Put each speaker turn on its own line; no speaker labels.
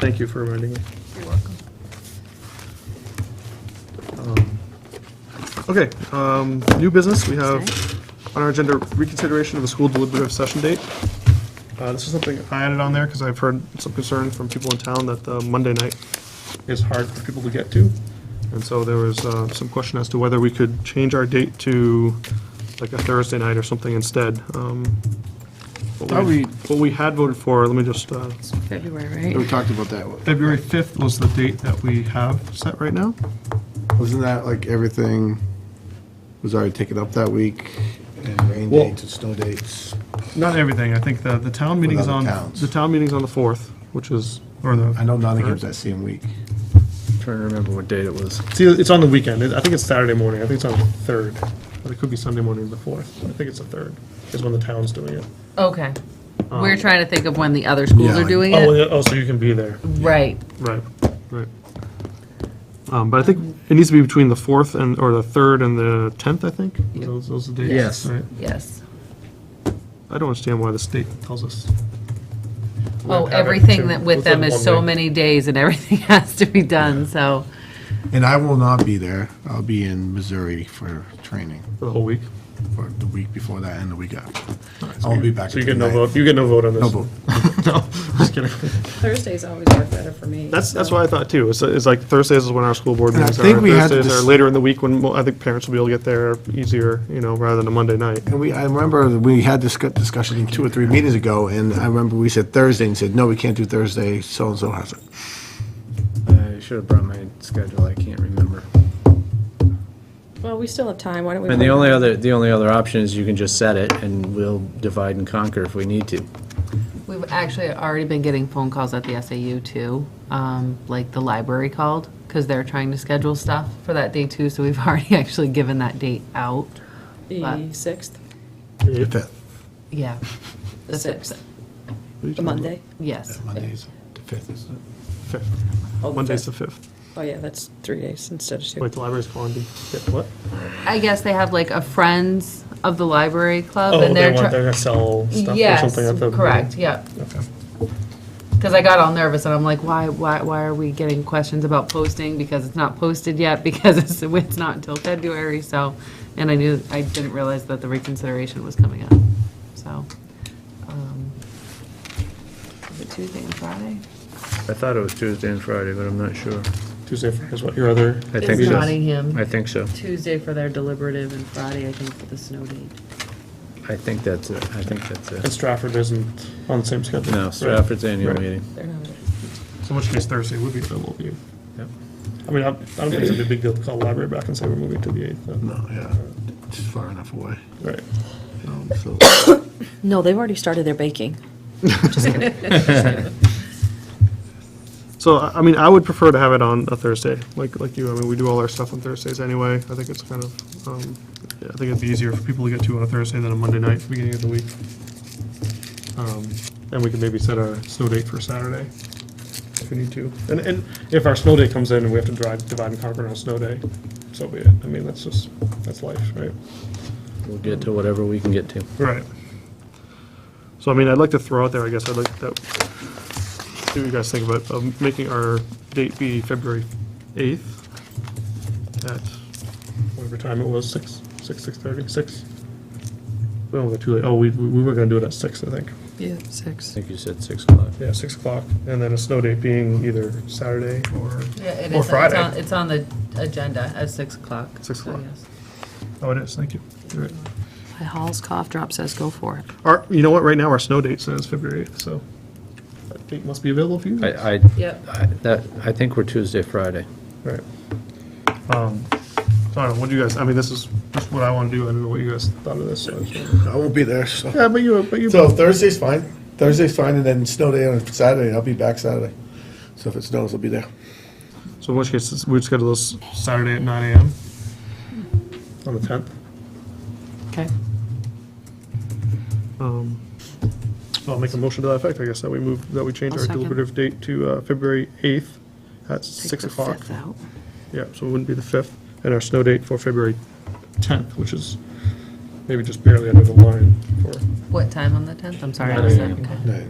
Thank you for reminding me.
You're welcome.
Um, Okay, um, new business, we have on our agenda reconsideration of a school deliberative session date. Uh, This is something I added on there because I've heard some concern from people in town that the Monday night is hard for people to get to. And so there was uh, some question as to whether we could change our date to like a Thursday night or something instead. Um,
Are
What we,
we-
what we had voted for, let me just, uh,
It's February,
We
right?
talked about that.
February 5th was the date that we have set right now.
Wasn't that like everything was already taken up that week?
And rain
Well-
dates and snow dates.
Not everything, I think the, the town meeting's
other
on,
towns.
the town meeting's on the 4th, which is, or
I
the,
know Nottingham's that same week.
Trying to remember what date it was.
see, it's on the weekend, I think it's Saturday morning, I think it's on the 3rd, but it could be Sunday morning of the 4th, I think it's the 3rd, is when the town's doing it.
Okay. We're trying to think of when the other schools are
Yeah, like-
doing
Oh,
it.
Um, yeah, oh, so you can be there,
Right.
right, right. Um, but I think it needs to be between the 4th and, or the 3rd and the 10th, I think,
Yeah.
those, those are the dates.
Yes.
right?
Yes.
I don't understand why the state tells us.
Oh,
Have it
everything
to-
that with
within
them is
one
so
week.
many days and everything has to be done, so.
And I will not be there. I'll be in Missouri for training
For the whole week.
for the week before that and the week after. I won't be back.
So you get
until
no
the
vote, you get no vote on this.
ninth. No vote.
No, just kidding.
Thursdays always work better for me.
That's, that's what I thought too. It's, it's like Thursdays is when our school board
And I
meetings are.
think we had
Thursdays
this-
are later in the week when, mo- I think parents will be able to get there easier, you know, rather than a Monday night.
And we, I remember that we had this good discussion two or three meetings ago, and I remember we said Thursday and said, no, we can't do Thursday, so-and-so has it.
I should have brought my schedule, I can't remember.
Well, we still have time, why don't we?
And the only other, the only other option is you can just set it, and we'll divide and conquer if we need to.
We've actually already been getting phone calls at the SAU too, um, like the library called, because they're trying to schedule stuff for that day too, so we've already actually given that date out.
The sixth,
Fifth.
Yeah,
the sixth, the Monday.
yes.
Monday's the fifth, isn't it?
Oh, the
Monday's the
fifth.
fifth.
Oh, yeah, that's three days instead of two.
Wait, the library's calling to get
Um,
what?
I guess they have like a Friends of the Library Club
Oh,
and
they
they're.
want, they're
try-
gonna sell stuff or
Yes,
something at the.
correct, yep.
Okay.
Because I got all nervous and I'm like, why, why, why are we getting questions about posting? Because it's not posted yet, because it's, it's not until February, so. And I knew, I didn't realize that the reconsideration was coming up, so. um, Is it Tuesday and Friday?
I thought it was Tuesday and Friday, but I'm not sure.
Tuesday, Friday is what your other,
I think
It's
so. I
Nottingham,
think so.
Tuesday for their deliberative and Friday, I think, for the snow date.
I think that's it, I think that's
and
it.
Stratford isn't on the same schedule.
No,
Right.
Stratford's annual
Right.
meeting.
They're not-
So in which case Thursday would be available to you.
Yep.
I mean, I I don't think it's gonna be a big deal to call the library back and say we're moving to the eighth.
No, yeah, it's far enough away.
Right. Oh.
um, so-
No, they've already started their baking.
So, I I mean, I would prefer to have it on a Thursday, like, like you, I mean, we do all our stuff on Thursdays anyway, I think it's kind of, um, yeah, I think it'd be easier for people to get to on a Thursday than a Monday night, beginning of the week. Um, And we could maybe set a snow date for Saturday, if we need to, and, and if our snow day comes in and we have to drive, divide and conquer on a snow day, so be it, I mean, that's just, that's life, right?
We'll get to whatever we can get to.
Right. So, I mean, I'd like to throw out there, I guess, I'd like that, see what you guys think about um, making our date be February 8th at whatever time it was, 6, 6, 6:30, 6? We don't go too late, oh, we, we were gonna do it at 6, I think,
Yeah,
I
six.
think you said 6 o'clock.
yeah, 6 o'clock, and then a snow date being either Saturday or,
Yeah, it is,
Or
it's
Friday.
on, it's on the agenda at six o'clock.
Six
so
o'clock.
yes.
oh, it is, thank you. You're right.
My Hall's cough drop says go for it.
Our, you know what, right now, our snow date says February 8th, so that date must be available for you. guys.
I, I,
Yep.
I- that, I think we're Tuesday, Friday.
Right. Um, so I don't know, what do you guys, I mean, this is just what I want to do, I don't know what you guys thought of this, so. I just wanna-
I won't be there, so.
Yeah, but you, but you.
So Thursday's fine. Thursday's fine, and then snow day on Saturday, and I'll be back Saturday. So if it snows, I'll be there.
So in which case, it's- we'd schedule this Saturday at nine AM on the tenth.
Okay.
Um, I'll make a motion to that effect, I guess, that we move, that we change
I'll
our
second.
deliberative date to, uh, February eighth at
Take
six
the
o'clock.
fifth uh. out.
Yeah, so it wouldn't be the fifth, and our snow date for February tenth, which is maybe just barely under the line for.
What time on the tenth? I'm sorry. I
Nine
missed
a.m.
that. Okay.